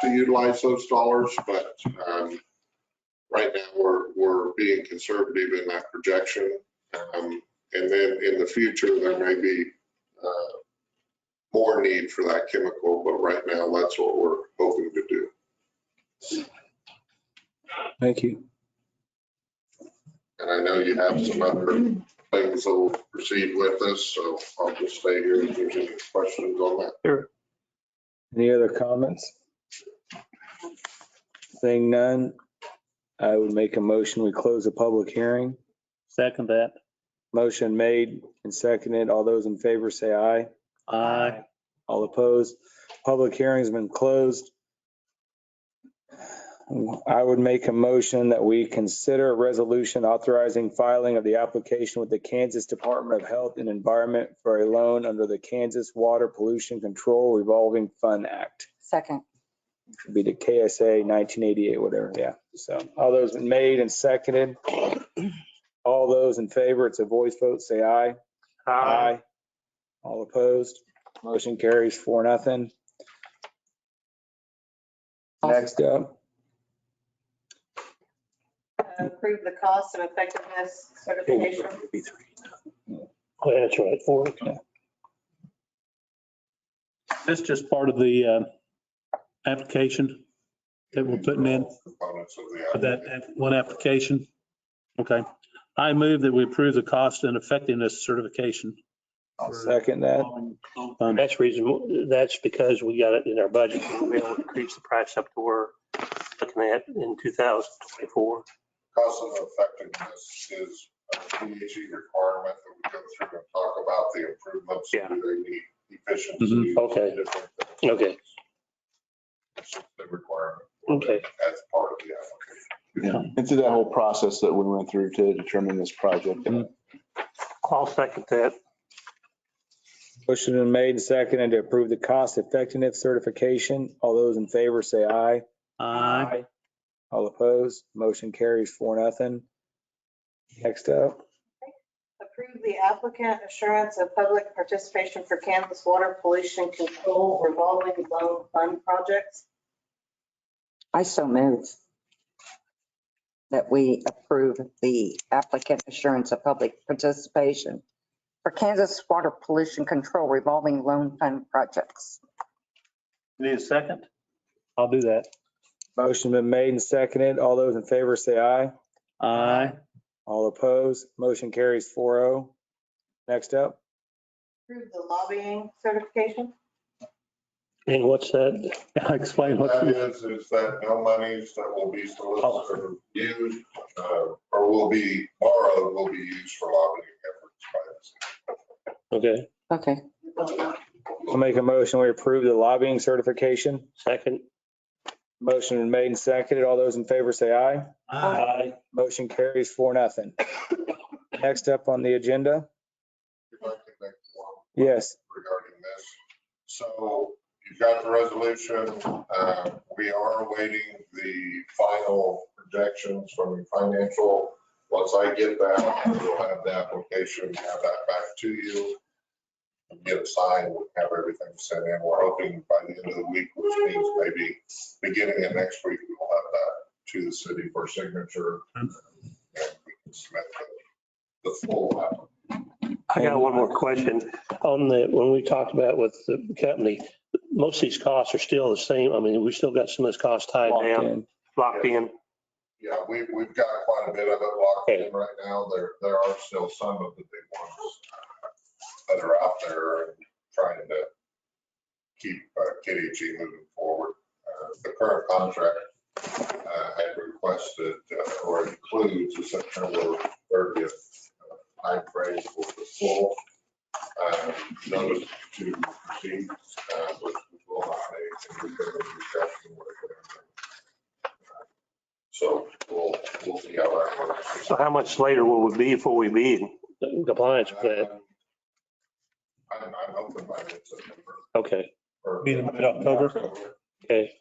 to utilize those dollars, but um, right now, we're, we're being conservative in that projection. Um, And then in the future, there may be uh, more need for that chemical, but right now, that's what we're hoping to do. Thank you. And I know you have some other things that will proceed with this, so I'll just stay here if there's any questions on that. Any other comments? Saying none, I would make a motion, we close the public hearing. Second that. Motion made and seconded. All those in favor say aye. Aye. All opposed? Public hearing's been closed. I would make a motion that we consider a resolution authorizing filing of the application with the Kansas Department of Health and Environment for a loan under the Kansas Water Pollution Control Revolving Fund Act. Second. Should be the KSA 1988, whatever, yeah. So all those made and seconded. All those in favor, it's a voice vote, say aye. Aye. All opposed? Motion carries four, nothing. Next up, Approve the cost and effectiveness certification. Oh, yeah, That's right, four. That's just part of the uh, application that we're putting in, Components of the for that app- one application. Okay. I move that we approve the cost and effectiveness certification. I'll second that. Um, That's reason, that's because we got it in our budget. We'll be able to increase the price up to where we're looking at in 2024. Cost and effectiveness is a PHE requirement that we go through and talk about the improvements. Yeah. Do They need efficiency. Mhm, okay. different things. Okay, It's just the requirement. Okay. As part of the application. And through that whole process that we went through to determine this project, I'll second that. Motion been made and seconded to approve the cost effectiveness certification. All those in favor say aye. Aye. All opposed? Motion carries four, nothing. Next up, Approve the applicant assurance of public participation for Kansas Water Pollution Control revolving loan fund projects. I so move that we approve the applicant assurance of public participation for Kansas Water Pollution Control Revolving Loan Fund Projects. Need a second? I'll do that. motion been made and seconded. All those in favor say aye. Aye. All opposed? Motion carries four oh. Next up. Approve the lobbying certification. And what's that? Explain what. That is, is that no monies that will be solicited or used, uh, or will be borrowed, will be used for lobbying efforts by the city. Okay, Okay, I'll make a motion, we approve the lobbying certification. second. Motion been made and seconded. All those in favor say aye. Aye. Motion carries four, nothing. Next up on the agenda, If I could make one yes, regarding this. So you've got the resolution. Uh, We are awaiting the final projections from the financial. Once I get that, we'll have the application, have that back to you. Get it signed, we'll have everything sent in. We're hoping by the end of the week, which means maybe beginning of next week, we'll have that to the city for signature. And we can submit the the full application. I got one more question. On the, when we talked about with the company, most of these costs are still the same. I mean, we still got some of this cost tied locked down, in. locked in. Yeah, we, we've got quite a bit of it locked in right now. There, there are still some of the big ones that are out there and trying to keep uh, KDG moving forward. Uh, The current contract uh, had requested uh, or includes a September 30th timeframe for the full uh, notice to proceed, uh, but we will not make any further discussion with it. So we'll, we'll see how that works. So how much later will we be before we be in compliance with that? I'm, I'm hoping by mid-September. Okay, or- Be in mid-October? okay.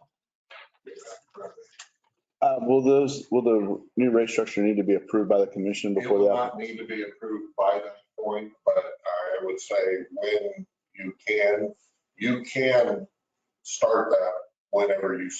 uh, will those, will the new rate structure need to be approved by the commission It before will that? not need to be approved by that point, but I would say when you can, you can start that whenever you